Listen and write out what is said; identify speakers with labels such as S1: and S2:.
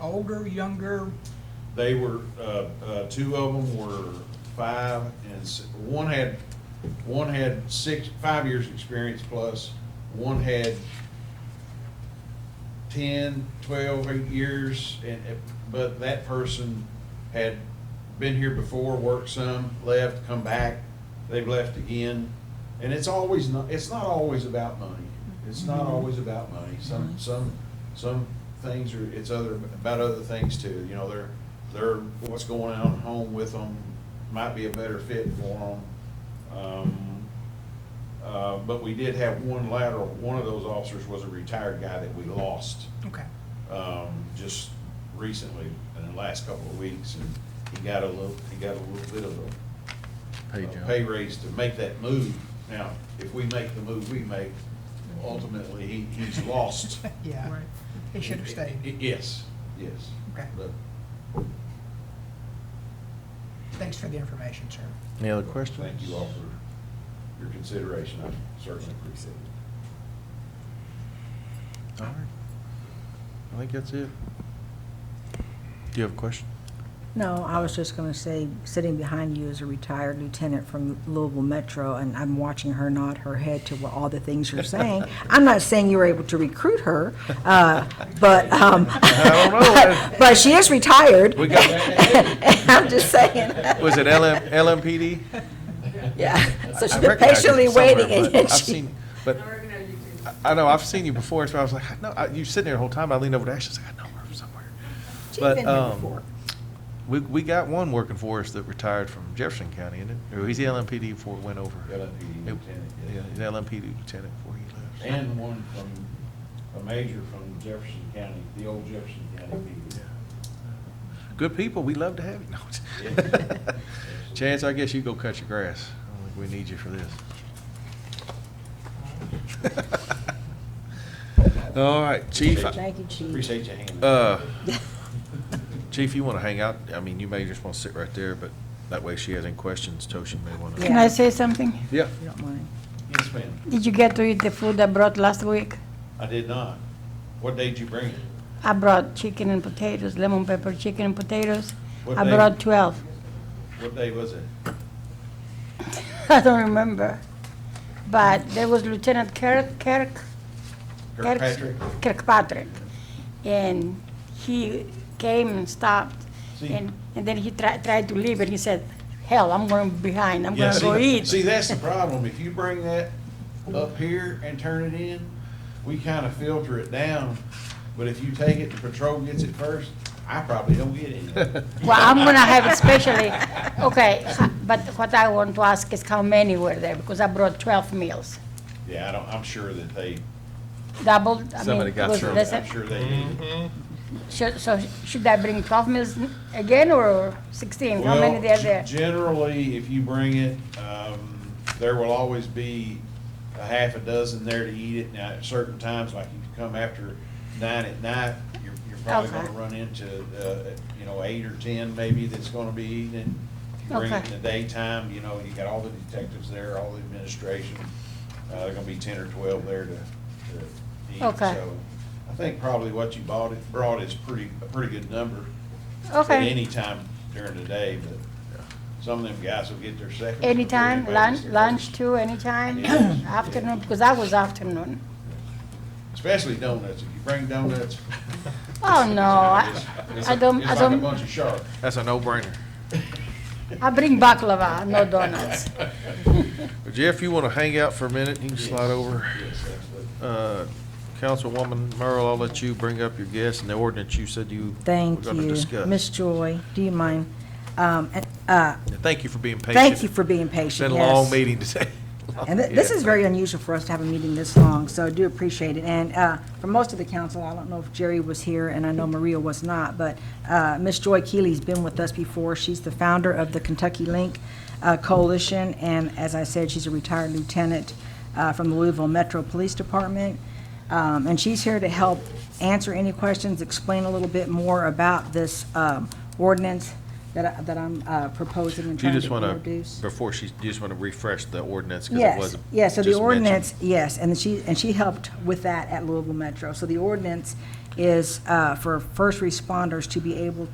S1: older, younger?
S2: They were, uh, uh, two of them were five and s- one had, one had six, five years' experience plus. One had ten, twelve, eight years and, it- but that person had been here before, worked some, left, come back. They've left again. And it's always not, it's not always about money. It's not
S1: Mhm.
S2: always about money. Some,
S1: Mhm.
S2: some, some things are, it's other, about other things too, you know, they're, they're, what's going on at home with them might be a better fit for them. Um, uh, but we did have one lateral, one of those officers was a retired guy that we lost,
S1: Okay.
S2: um, just recently, in the last couple of weeks, and he got a little, he got a little bit of a
S3: Pay
S2: uh,
S3: jump.
S2: pay raise to make that move. Now, if we make the move we make, ultimately, he, he's lost.
S1: Yeah,
S4: Right.
S1: he should have stayed.
S2: Yes, yes.
S1: Okay.
S2: But
S1: Thanks for the information, sir.
S3: Any other questions?
S2: thank you all for your consideration, I certainly appreciate it.
S3: All right. I think that's it. Do you have a question?
S5: No, I was just gonna say, sitting behind you is a retired lieutenant from Louisville Metro, and I'm watching her nod her head to what all the things you're saying. I'm not saying you were able to recruit her, uh, but, um,
S3: I don't know.
S5: but she is retired.
S3: We got-
S5: I'm just saying.
S3: Was it LM, LMPD?
S5: Yeah, so she's
S3: I
S5: been
S3: recognized it
S5: patiently
S3: somewhere,
S5: waiting,
S3: but
S5: and yet
S3: I've
S5: she,
S3: seen- But
S4: I recognize you too.
S3: I- I know, I've seen you before, so I was like, I know, I- you sitting there the whole time, I leaned over to Ashley, I was like, I know her from somewhere.
S5: she's
S3: but,
S5: been here
S3: um,
S5: before.
S3: We, we got one working for us that retired from Jefferson County, isn't it? Or he's the LMPD before it went over.
S2: LMPD
S3: It-
S2: lieutenant, yeah.
S3: Yeah, he's LMPD lieutenant before he left.
S2: And one from, a major from Jefferson County, the old Jefferson County people.
S3: Good people, we love to have you.
S2: Yeah.
S3: No. Chance, I guess you go cut your grass. I don't think we need you for this. All right, Chief. I-
S5: Thank you, Chief.
S2: Appreciate your hand.
S3: Uh, Chief, you want to hang out? I mean, you may just want to sit right there, but that way she has any questions, Toshin may want to.
S6: Can I say something?
S3: Yeah,
S5: You don't mind.
S2: Yes, ma'am.
S6: Did you get to eat the food I brought last week?
S2: I did not. What day did you bring it?
S6: I brought chicken and potatoes, lemon pepper chicken and potatoes.
S2: What
S6: I
S2: day?
S6: brought 12.
S2: What day was it?
S6: I don't remember. But there was Lieutenant Kirk, Kirk, Kirk's-
S2: Kirkpatrick?
S6: Kirkpatrick. And he came and stopped.
S2: See.
S6: And, and then he tried, tried to leave and he said, hell, I'm going behind, I'm
S2: Yeah,
S6: going to go
S2: see-
S6: eat.
S2: See, that's the problem. If you bring that up here and turn it in, we kind of filter it down. But if you take it, the patrol gets it first, I probably don't get any.
S6: Well, I'm gonna have it specially, okay, ha- but what I want to ask is how many were there, because I brought twelve meals,
S2: Yeah, I don't, I'm sure that they,
S6: doubled, I
S3: Somebody
S6: mean,
S3: got
S6: was
S3: served.
S6: less
S2: I'm
S6: than-
S2: sure they did.
S6: should- so should I bring twelve meals n- again, or sixteen, how many
S2: Well,
S6: there
S2: g-
S6: there?
S2: Generally, if you bring it, um, there will always be a half a dozen there to eat it. Now, at certain times, like if you come after nine at night, you're, you're probably
S6: Okay.
S2: gonna run into, uh, you know, eight or ten maybe that's gonna be eating. it. If you bring it in
S6: Okay.
S2: the daytime, you know, you got all the detectives there, all the administration. Uh, there gonna be ten or twelve there to, to eat.
S6: Okay.
S2: So I think probably what you bought it, brought is pretty, a pretty good number. At
S6: Okay.
S2: any time during the day, but some of them guys will get their seconds. before
S6: Anytime,
S2: anybody
S6: lunch,
S2: gets their
S6: lunch
S2: first.
S6: too, anytime,
S2: Yes.
S6: afternoon, because I was afternoon.
S2: Especially donuts, if you bring donuts.
S6: Oh, no, I,
S2: it's- it's
S6: I
S2: like-
S6: don't, I
S2: It's like a
S6: don't,
S2: bunch of sharks.
S3: that's a no-brainer.
S6: I bring baklava, no donuts.
S3: Jeff, you want to hang out for a minute? You can slide over.
S2: Yes, absolutely.
S3: Uh, Councilwoman Merle, I'll let you bring up your guests and the ordinance you said you were
S5: Thank
S3: going to
S5: you.
S3: discuss.
S5: Miss Joy, do you mind? Um, and, uh,
S3: Thank you for being patient.
S5: Thank you for being
S3: It's
S5: patient,
S3: been a
S5: yes.
S3: long meeting today.
S5: And thi- this is very unusual for us to have a meeting this long, so I do appreciate it. And uh, for most of the council, I don't know if Jerry was here, and I know Maria was not, but uh, Ms. Joy Keely's been with us before. She's the founder of the Kentucky Link uh, Coalition, and as I said, she's a retired lieutenant uh, from the Louisville Metro Police Department. Um, And she's here to help answer any questions, explain a little bit more about this um, ordinance that I- that I'm uh, proposing and
S3: Do you
S5: trying
S3: just
S5: to
S3: want to,
S5: introduce.
S3: before she, you just want to refresh the ordinance? 'cause it
S5: Yes,
S3: wasn't
S5: yes, so the
S3: just mentioned.
S5: ordinance, yes, and she, and she helped with that at Louisville Metro. So the ordinance is uh, for first responders to be able